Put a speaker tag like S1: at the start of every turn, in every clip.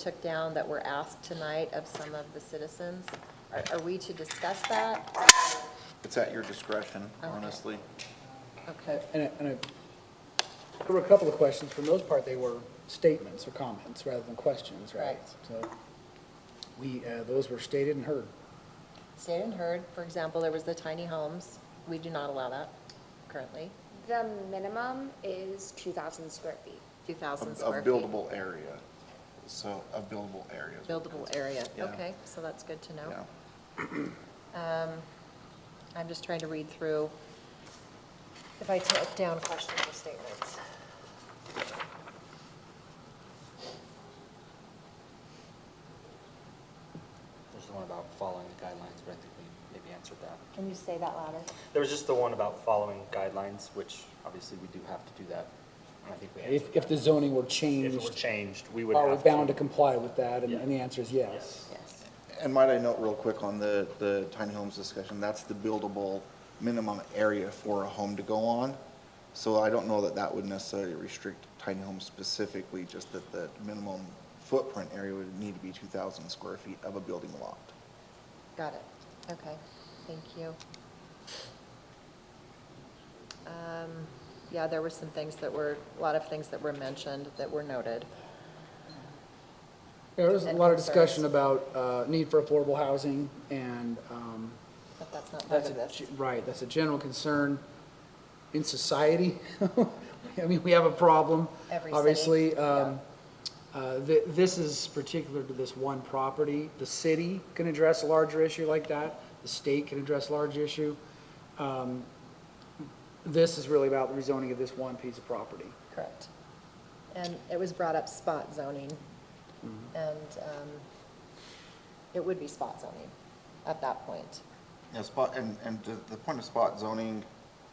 S1: took down that were asked tonight of some of the citizens. Are- Are we to discuss that?
S2: It's at your discretion, honestly.
S1: Okay.
S3: And, I- and I- there were a couple of questions. For the most part, they were statements or comments rather than questions, right?
S1: Right.
S3: So we, uh, those were stated and heard.
S1: Stated and heard, for example, there was the tiny homes. We do not allow that currently,
S4: The minimum is 2,000 square feet.
S1: 2,000
S2: Of
S1: square
S2: of
S1: feet.
S2: buildable area, so, of buildable areas.
S1: Buildable area,
S2: Yeah.
S1: okay, so that's good to know.
S2: Yeah.
S1: I'm just trying to read through if I took down questions or statements.
S5: There's the one about following the guidelines, but I think we maybe answered that.
S1: Can you say that louder?
S5: There was just the one about following guidelines, which obviously we do have to do that. and I think we
S3: If,
S5: answered
S3: if the
S5: that.
S3: zoning were
S5: If
S3: changed.
S5: it were changed, we would have
S3: Are
S5: to.
S3: we bound to comply with that? And
S5: Yeah.
S3: and the answer is yes.
S1: Yes.
S2: And might I note real quick on the, the tiny homes discussion, that's the buildable minimum area for a home to go on. So I don't know that that would necessarily restrict tiny homes specifically, just that the minimum footprint area would need to be 2,000 square feet of a building lot.
S1: Got it, okay, thank you. Um, Yeah, there were some things that were, a lot of things that were mentioned that were noted.
S3: There was a
S1: And
S3: lot of
S1: concerns.
S3: discussion about, uh, need for affordable housing and, um,
S1: But that's not part
S3: That's
S1: of
S3: a,
S1: this.
S3: ge- right, that's a general concern in society. I mean, we have a problem,
S1: Every city,
S3: obviously. Um, uh, thi- This is particular to this one property. The city can address a larger issue like that, the state can address a large issue. Um, This is really about the rezoning of this one piece of property.
S1: Correct. And it was brought up spot zoning,
S3: Mm-hmm.
S1: and um, it would be spot zoning at that point.
S2: Yeah, spot, and, and the, the point of spot zoning,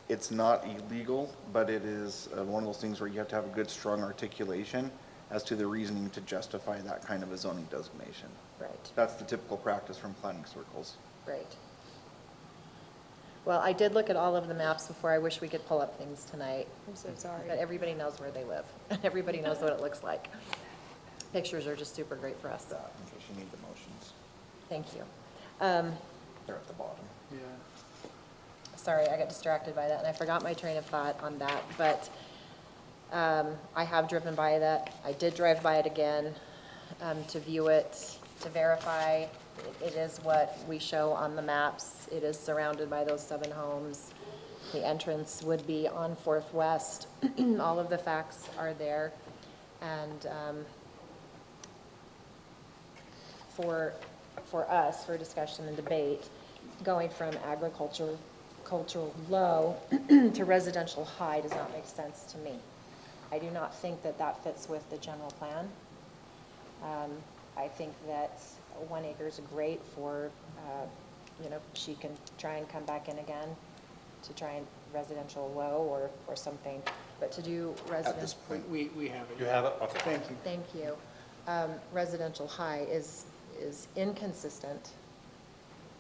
S2: it's not illegal, but it is uh, one of those things where you have to have a good, strong articulation as to the reasoning to justify that kind of a zoning designation.
S1: Right.
S2: That's the typical practice from planning circles.
S1: Great. Well, I did look at all of the maps before. I wish we could pull up things tonight.
S4: I'm so sorry.
S1: But everybody knows where they live, and everybody knows what it looks like. Pictures are just super great for us.
S2: That, in case you need the motions,
S1: Thank you. Um,
S2: they're at the bottom.
S1: Sorry, I got distracted by that, and I forgot my train of thought on that, but um, I have driven by that. I did drive by it again um, to view it, to verify. It- It is what we show on the maps. It is surrounded by those seven homes. The entrance would be on Fourth West. All of the facts are there. And um, for, for us, for discussion and debate, going from agriculture, cultural low to residential high does not make sense to me. I do not think that that fits with the general plan. Um, I think that one acre is great for, uh, you know, she can try and come back in again to try and residential low or, or something, but to do residential.
S2: At this point,
S3: We, we have it.
S5: You have it? Okay.
S3: Thank you.
S1: Thank you. Um, Residential high is, is inconsistent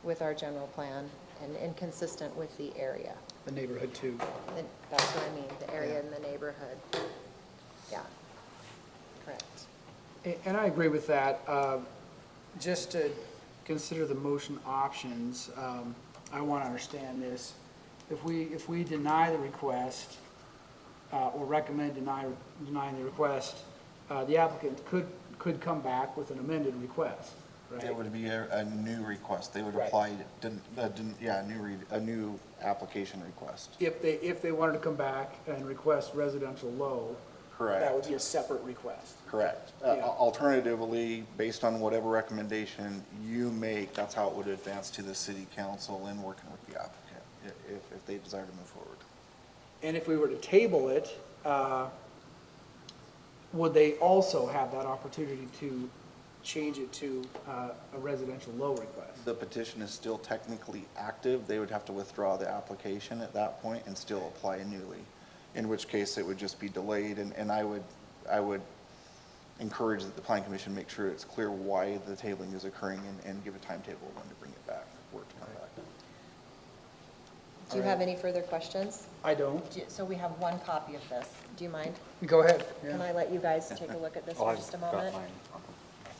S1: with our general plan and inconsistent with the area.
S3: The neighborhood too.
S1: And That's what I mean, the area and the neighborhood. Yeah, correct.
S3: A- And I agree with that. Uh, Just to consider the motion options, um, I want to understand this. If we, if we deny the request, uh, or recommend deny, denying the request, uh, the applicant could, could come back with an amended request, right?
S2: It would be a, a new request, they would
S3: Right.
S2: apply, den- uh, den- yeah, a new, re- a new application request.
S3: If they, if they wanted to come back and request residential low. That would
S2: Correct.
S3: be a separate request.
S2: Correct. Uh,
S3: Yeah.
S2: Alternatively, based on whatever recommendation you make, that's how it would advance to the city council in working with the applicant, i- if, if they desire to move forward.
S3: And if we were to table it, uh, would they also have that opportunity to change it to uh, a residential low request?
S2: The petition is still technically active, they would have to withdraw the application at that point and still apply newly, in which case it would just be delayed, and, and I would, I would encourage that the planning commission make sure it's clear why the tabling is occurring and, and give a timetable when to bring it back, where to come back.
S1: Do you have any further questions?
S3: I don't.
S1: Do you- So we have one copy of this. Do you mind?
S3: Go ahead.
S1: Can I let you guys take a look at this
S5: Oh,
S1: for
S5: I've
S1: just a
S5: got
S1: moment?
S5: mine on